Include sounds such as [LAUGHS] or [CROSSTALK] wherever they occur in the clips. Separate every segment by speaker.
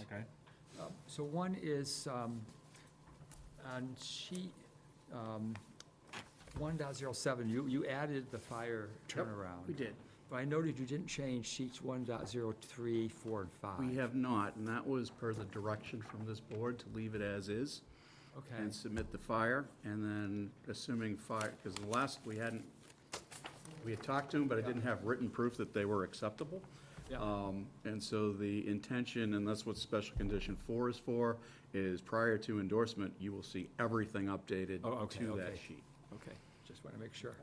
Speaker 1: Okay.
Speaker 2: Um, So one is, um, on sheet, um, one dot zero seven, you, you added the fire turnaround.
Speaker 3: We did.
Speaker 2: But I noted you didn't change sheets one dot zero three, four, and five.
Speaker 3: We have not, and that was per the direction from this board to leave it as is
Speaker 2: Okay,
Speaker 3: and submit the fire, and then assuming fire, because the last, we hadn't, we had talked to them, but I didn't have written proof that they were acceptable.
Speaker 2: Yeah.
Speaker 3: Um, And so the intention, and that's what special condition four is for, is prior to endorsement, you will see everything updated
Speaker 2: Oh, okay,
Speaker 3: to that
Speaker 2: okay.
Speaker 3: sheet.
Speaker 2: okay, just want to make sure,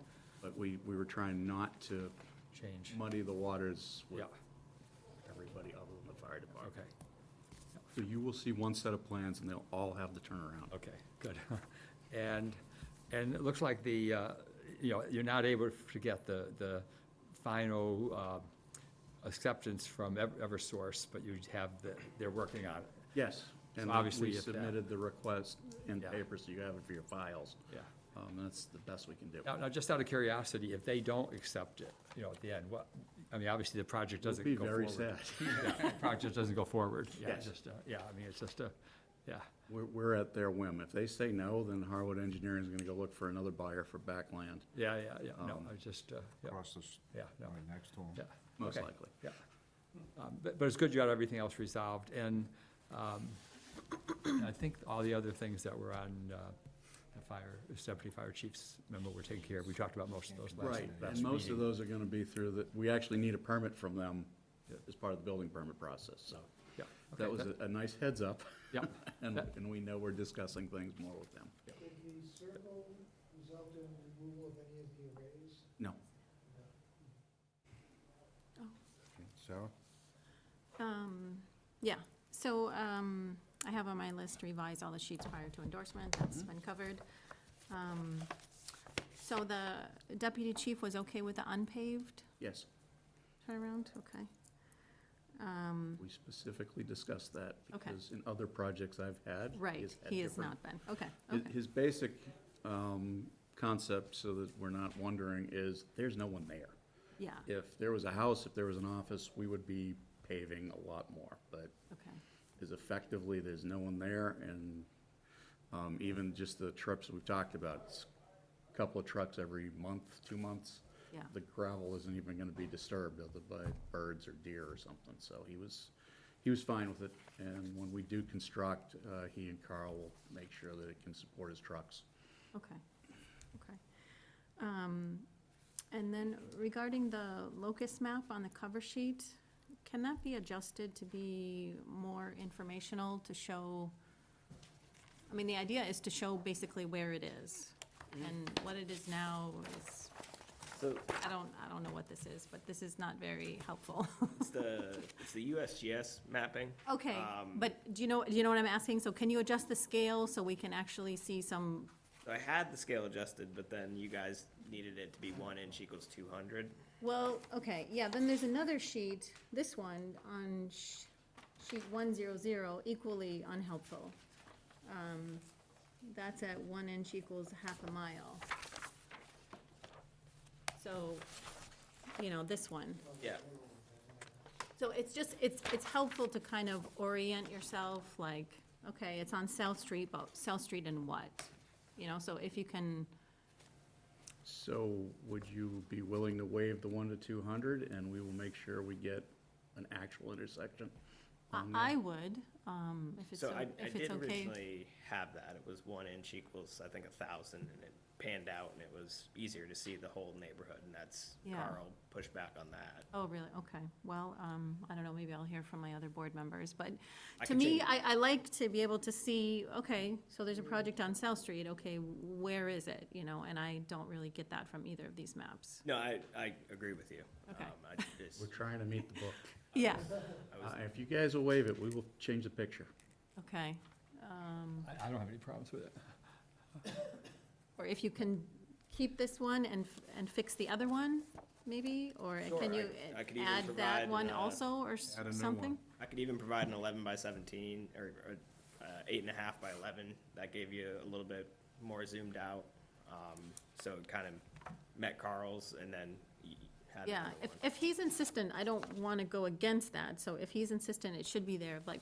Speaker 3: But we, we were trying not to
Speaker 2: change,
Speaker 3: muddy the waters with
Speaker 2: yeah,
Speaker 3: everybody other than the fire department.
Speaker 2: okay.
Speaker 3: So you will see one set of plans, and they'll all have the turnaround.
Speaker 2: Okay, good. [LAUGHS] And, and it looks like the, uh, you know, you're not able to get the, the final uh, acceptance from Ev- Eversource, but you have the, they're working on it.
Speaker 3: Yes. And
Speaker 2: So obviously
Speaker 3: we
Speaker 2: if that-
Speaker 3: submitted the request in
Speaker 2: Yeah.
Speaker 3: paper, so you have it for your files.
Speaker 2: Yeah.
Speaker 3: Um, That's the best we can do.
Speaker 2: Now, now, just out of curiosity, if they don't accept it, you know, at the end, what, I mean, obviously, the project
Speaker 3: It'll
Speaker 2: doesn't
Speaker 3: be
Speaker 2: go
Speaker 3: very
Speaker 2: forward.
Speaker 3: sad.
Speaker 2: [LAUGHS] Yeah, the Project doesn't go
Speaker 3: [LAUGHS]
Speaker 2: forward. Yeah,
Speaker 3: Yes.
Speaker 2: just, uh, Yeah, I mean, it's just a, yeah,
Speaker 3: We're, we're at their whim. If they say no, then Harwood Engineering is going to go look for another buyer for backland,
Speaker 2: yeah, yeah, yeah, no,
Speaker 3: Um,
Speaker 2: I just, uh, yeah,
Speaker 1: Across this,
Speaker 2: yeah, no,
Speaker 1: right next to
Speaker 2: yeah.
Speaker 1: him.
Speaker 3: most
Speaker 2: okay.
Speaker 3: likely.
Speaker 2: Yeah. Um, But, but it's good you got everything else resolved, and um, I think all the other things that were on uh, the fire, deputy fire chief's memo were taken care of. We talked about most of those last, last
Speaker 3: Right,
Speaker 2: meeting.
Speaker 3: and most of those are going to be through the, we actually need a permit from them as part of the building permit process, so.
Speaker 2: Yeah,
Speaker 3: That
Speaker 2: okay,
Speaker 3: was a- a nice heads up, [LAUGHS]
Speaker 2: Yeah,
Speaker 3: and,
Speaker 2: That-
Speaker 3: and we know we're discussing things more with them.
Speaker 4: Did the circle result in removal of any of the arrays?
Speaker 3: No.
Speaker 4: No.
Speaker 1: Okay, Sarah?
Speaker 5: Um, yeah, so, um, I have on my list revise all the sheets prior to endorsement, that's
Speaker 3: Mm-hmm.
Speaker 5: been covered. Um, so the deputy chief was okay with the unpaved
Speaker 3: Yes,
Speaker 5: turnaround, okay? Um,
Speaker 3: we specifically discussed that
Speaker 5: Okay.
Speaker 3: because in other projects I've had. he
Speaker 5: right,
Speaker 3: has had
Speaker 5: he has
Speaker 3: different-
Speaker 5: not been, okay,
Speaker 3: Hi-
Speaker 5: okay,
Speaker 3: His basic um, concept, so that we're not wondering, is there's no one there.
Speaker 5: yeah,
Speaker 3: If there was a house, if there was an office, we would be paving a lot more, but
Speaker 5: okay,
Speaker 3: is effectively, there's no one there, and um, even just the trips we've talked about, it's a couple of trucks every month, two months.
Speaker 5: yeah,
Speaker 3: The gravel isn't even gonna be disturbed other by birds or deer or something, so he was, he was fine with it. And when we do construct, uh, he and Carl will make sure that it can support his trucks.
Speaker 5: okay, okay. Um, and then regarding the locust map on the cover sheet, can that be adjusted to be more informational to show? I mean, the idea is to show basically where it is, and what it is now is,
Speaker 6: So
Speaker 5: I don't, I don't know what this is, but this is not very helpful. [LAUGHS]
Speaker 6: it's the, it's the USGS mapping.
Speaker 5: Okay,
Speaker 6: Um,
Speaker 5: but do you know, do you know what I'm asking? So can you adjust the scale so we can actually see some,
Speaker 6: So I had the scale adjusted, but then you guys needed it to be one inch equals two hundred.
Speaker 5: Well, okay, yeah, then there's another sheet, this one, on sh- sheet one zero zero, equally unhelpful. Um, That's at one inch equals half a mile. So, you know, this one.
Speaker 6: Yeah.
Speaker 5: So it's just, it's, it's helpful to kind of orient yourself, like, okay, it's on South Street, but South Street and what? You know, so if you can,
Speaker 3: So would you be willing to waive the one to two hundred, and we will make sure we get an actual intersection?
Speaker 5: I,
Speaker 3: on there?
Speaker 5: I would, um, if it's,
Speaker 6: So
Speaker 5: o-
Speaker 6: I, I
Speaker 5: if
Speaker 6: did
Speaker 5: it's okay.
Speaker 6: originally have that. It was one inch equals, I think, a thousand, and it panned out, and it was easier to see the whole neighborhood, and that's,
Speaker 5: Yeah.
Speaker 6: Carl pushed back on that.
Speaker 5: Oh, really? Okay. Well, um, I don't know, maybe I'll hear from my other board members, but
Speaker 6: I
Speaker 5: to
Speaker 6: can
Speaker 5: me,
Speaker 6: change-
Speaker 5: I, I like to be able to see, okay, so there's a project on South Street, okay, where is it? You know, and I don't really get that from either of these maps.
Speaker 6: No, I, I agree with you.
Speaker 5: Okay.
Speaker 6: Um, I just,
Speaker 3: We're trying to meet the book.
Speaker 5: Yeah.
Speaker 6: I was
Speaker 3: Uh, If you guys will waive it, we will change the picture.
Speaker 5: Okay. Um,
Speaker 2: I, I don't have any problems with it.
Speaker 5: or if you can keep this one and, f- and fix the other one, maybe? Or
Speaker 6: Sure,
Speaker 5: can
Speaker 6: I-
Speaker 5: you
Speaker 6: I could even
Speaker 5: add
Speaker 6: provide,
Speaker 5: that one
Speaker 6: uh,
Speaker 5: also or s-
Speaker 1: add a new one.
Speaker 5: something?
Speaker 6: I could even provide an eleven by seventeen, or, or, uh, eight and a half by eleven, that gave you a little bit more zoomed out. Um, so it kind of met Carl's and then y- had.
Speaker 5: Yeah,
Speaker 6: another
Speaker 5: if,
Speaker 6: one.
Speaker 5: if he's insistent, I don't want to go against that, so if he's insistent, it should be there, like,